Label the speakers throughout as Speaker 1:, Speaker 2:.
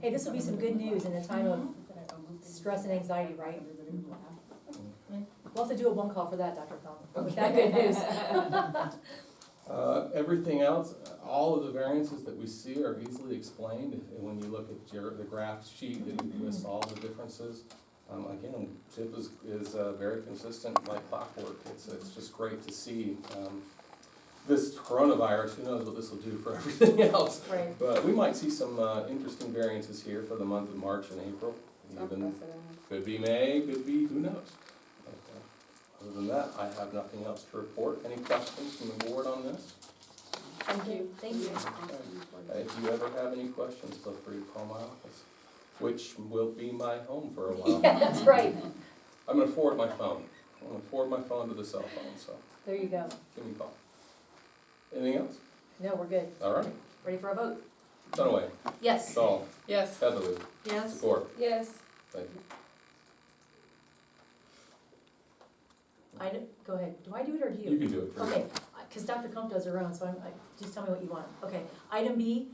Speaker 1: Hey, this will be some good news in a time of stress and anxiety, right? We'll have to do a one call for that, Dr. Cullen, with that good news.
Speaker 2: Uh, everything else, all of the variances that we see are easily explained, If- when you look at Jer- the graph sheet that lists all the differences. Um, again, CHIP is, is, uh, very consistent like clockwork, it's, it's just great to see, um, this coronavirus, who knows what this will do for everything else,
Speaker 1: Right,
Speaker 2: but we might see some, uh, interesting variances here for the month of March and April, even, could be May, could be, who knows? But, uh, Other than that, I have nothing else to report, any questions from the board on this?
Speaker 1: thank you, thank you.
Speaker 2: Uh, If you ever have any questions, feel free to call my office, which will be my home for a
Speaker 1: Yeah,
Speaker 2: while.
Speaker 1: that's right,
Speaker 2: I'm gonna forward my phone. I'm gonna forward my phone to the cell phone, so
Speaker 1: there you go.
Speaker 2: give me a call. Anything else?
Speaker 1: No, we're good,
Speaker 2: All right.
Speaker 1: ready for a vote?
Speaker 2: Dunaway,
Speaker 1: Yes.
Speaker 2: Dahl,
Speaker 3: Yes.
Speaker 2: Heatherly,
Speaker 3: Yes.
Speaker 2: Secor.
Speaker 3: Yes.
Speaker 2: Thank you.
Speaker 1: I, don't- go ahead, do I do it or do
Speaker 2: You can do it. for me.
Speaker 1: Okay, because Dr. Comp does her own, so I'm, I- just tell me what you want. Okay, item B,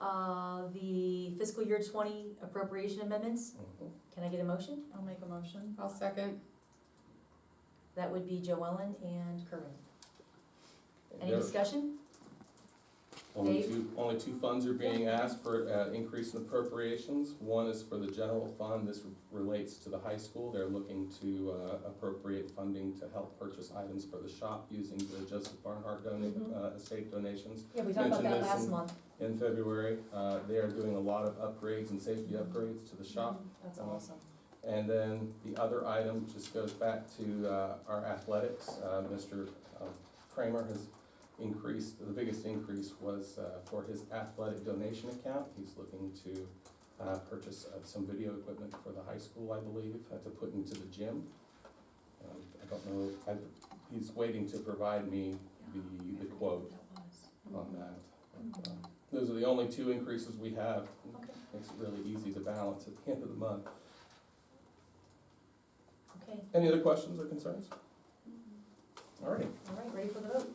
Speaker 1: uh, the fiscal year twenty appropriation amendments.
Speaker 2: Mhm.
Speaker 1: Can I get a motion?
Speaker 3: I'll make a motion. I'll second.
Speaker 1: That would be Joellen and Kerwin. Any
Speaker 2: Mm-hmm. There-
Speaker 1: discussion?
Speaker 2: Only
Speaker 1: Dave?
Speaker 2: two, only two funds are being asked for, uh, increase in appropriations. One is for the general fund, this relates to the high school. They're looking to, uh, appropriate funding to help purchase items for the shop using the Joseph Barnhart donate,
Speaker 1: Mhm.
Speaker 2: uh, estate donations
Speaker 1: Yeah, we talked about that
Speaker 2: Mention this
Speaker 1: last
Speaker 2: in-
Speaker 1: month.
Speaker 2: in February. Uh, they are doing a lot of upgrades and safety upgrades to the shop.
Speaker 1: That's
Speaker 2: Uh,
Speaker 1: awesome.
Speaker 2: And then the other item just goes back to uh, our athletics. Uh, Mr. Kramer has increased, the biggest increase was uh, for his athletic donation account. He's looking to uh, purchase uh, some video equipment for the high school, I believe, uh, to put into the gym. Um, I don't know, I, he's waiting to provide me the, the quote on that. But, um, Those are the only two increases we have.
Speaker 1: Okay.
Speaker 2: Makes it really easy to balance at the end of the month.
Speaker 1: Okay,
Speaker 2: Any other questions or concerns? All right,
Speaker 1: all right, ready for the vote?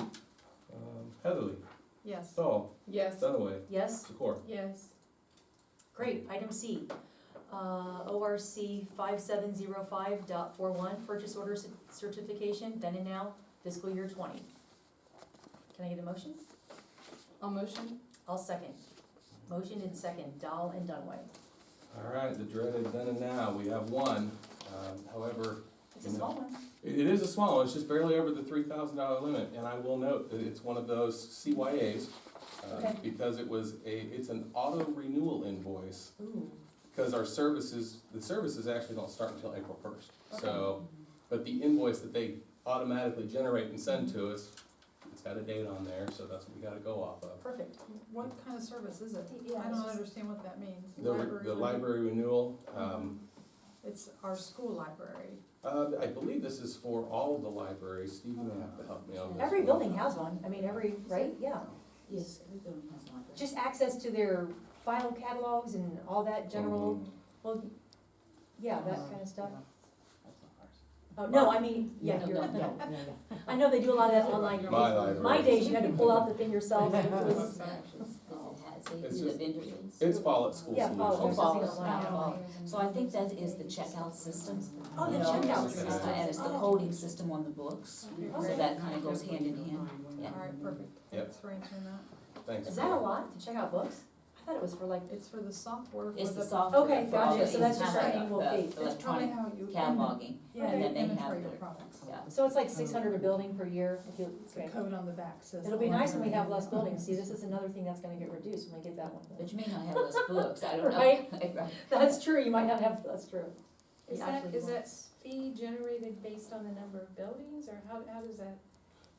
Speaker 2: um, Heatherly,
Speaker 3: Yes.
Speaker 2: Dahl,
Speaker 3: Yes.
Speaker 2: Dunaway,
Speaker 1: Yes,
Speaker 2: Secor.
Speaker 3: Yes.
Speaker 1: great. Item C, uh, ORC five seven zero five dot four one, purchase order cer- certification, then and now, fiscal year twenty. Can I get a motion?
Speaker 3: I'll motion.
Speaker 1: I'll second. Motion and second, Dahl and Dunaway.
Speaker 2: All right, the dreaded then and now, we have one. Um, However,
Speaker 1: It's a small one.
Speaker 2: it it is a small, one. it's just barely over the three thousand dollar limit, and I will note that it's one of those CYAs. uh,
Speaker 1: Okay.
Speaker 2: Because it was a, it's an auto renewal invoice,
Speaker 1: Ooh,
Speaker 2: because our services, the services actually don't start until April first. So, but the invoice that they automatically generate and send to us, it's got a date on there, so that's what we gotta go off of.
Speaker 1: perfect.
Speaker 4: What kind of service is it?
Speaker 1: Yeah,
Speaker 4: I
Speaker 1: it's
Speaker 4: don't
Speaker 1: just-
Speaker 4: understand what that means.
Speaker 2: The, the library renewal, um,
Speaker 4: It's our school library.
Speaker 2: uh, I believe this is for all of the libraries, Steve, you have to help me on this.
Speaker 1: Every
Speaker 2: one.
Speaker 1: building has one, I mean, every, right, yeah. Yes. Just access to their file catalogs and all that general,
Speaker 2: Mhm.
Speaker 1: well, yeah, that kind of stuff. Oh, no, I mean, yeah, you're, no. I know they do a lot of that online.
Speaker 2: My library.
Speaker 1: My days, you had to pull out the thing yourself, and it was,
Speaker 2: It's just- It's fall at school
Speaker 1: yeah, follow,
Speaker 2: solutions.
Speaker 1: follow online.
Speaker 5: So I think that is the checkout system.
Speaker 1: Oh, the
Speaker 5: you know,
Speaker 1: checkout
Speaker 5: it's the-
Speaker 1: system.
Speaker 5: And it's the
Speaker 1: Oh.
Speaker 5: coding system on the books, so that kind of goes hand in hand.
Speaker 4: All
Speaker 5: Yeah.
Speaker 4: right, perfect.
Speaker 2: Yep.
Speaker 4: Thanks for answering that.
Speaker 2: Thanks.
Speaker 1: Is that a lot to check out books? I thought it was for like,
Speaker 4: It's for the software. for
Speaker 5: It's the software.
Speaker 1: Okay,
Speaker 5: for all
Speaker 1: gotcha.
Speaker 5: the
Speaker 1: So that's just
Speaker 5: kind
Speaker 1: our
Speaker 5: of
Speaker 1: annual
Speaker 5: the
Speaker 1: fee. It's
Speaker 4: It's probably
Speaker 5: Electronic
Speaker 4: how you.
Speaker 5: cataloging,
Speaker 4: Yeah,
Speaker 5: and
Speaker 4: you
Speaker 5: then they
Speaker 4: inventory
Speaker 5: have
Speaker 4: your
Speaker 5: their-
Speaker 4: products.
Speaker 5: yeah.
Speaker 1: so it's like six hundred a building per year, if you,
Speaker 4: It's
Speaker 1: okay.
Speaker 4: the code on the back says.
Speaker 1: It'll be nice when we have less buildings, see, this is another thing that's gonna get reduced when we get that one.
Speaker 5: But you may not have those books, I don't know.
Speaker 1: Right.
Speaker 5: Right.
Speaker 1: That's true, you might not have, that's true.
Speaker 3: Is
Speaker 1: You
Speaker 3: that,
Speaker 1: actually
Speaker 3: is
Speaker 1: won't.
Speaker 3: that fee generated based on the number of buildings, or how, how does that?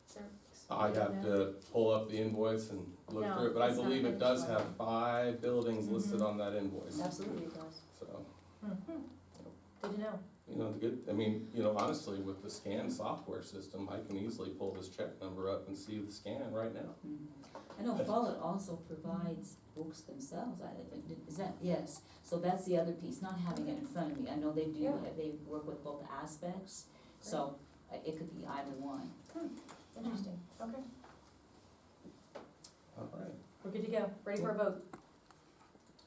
Speaker 3: is there-
Speaker 2: I have to pull up the invoice and look
Speaker 3: No,
Speaker 2: through it, but I
Speaker 3: it's not Mm-hmm.
Speaker 2: believe it does
Speaker 3: inventory.
Speaker 2: have five buildings listed on that invoice,
Speaker 1: Absolutely, it does.
Speaker 2: so.
Speaker 1: Good to know.
Speaker 2: You know, the good, I mean, you know, honestly, with the scan software system, I can easily pull this check number up and see the scan right now.
Speaker 5: I know Follett also provides books themselves, I, is that, yes, so that's the other piece, not having it in front of me, I know they do,
Speaker 1: Yeah.
Speaker 5: they work with both aspects, so uh, it could be either one.
Speaker 1: Interesting. Okay.
Speaker 2: All right.
Speaker 1: We're good to go. Ready for a vote?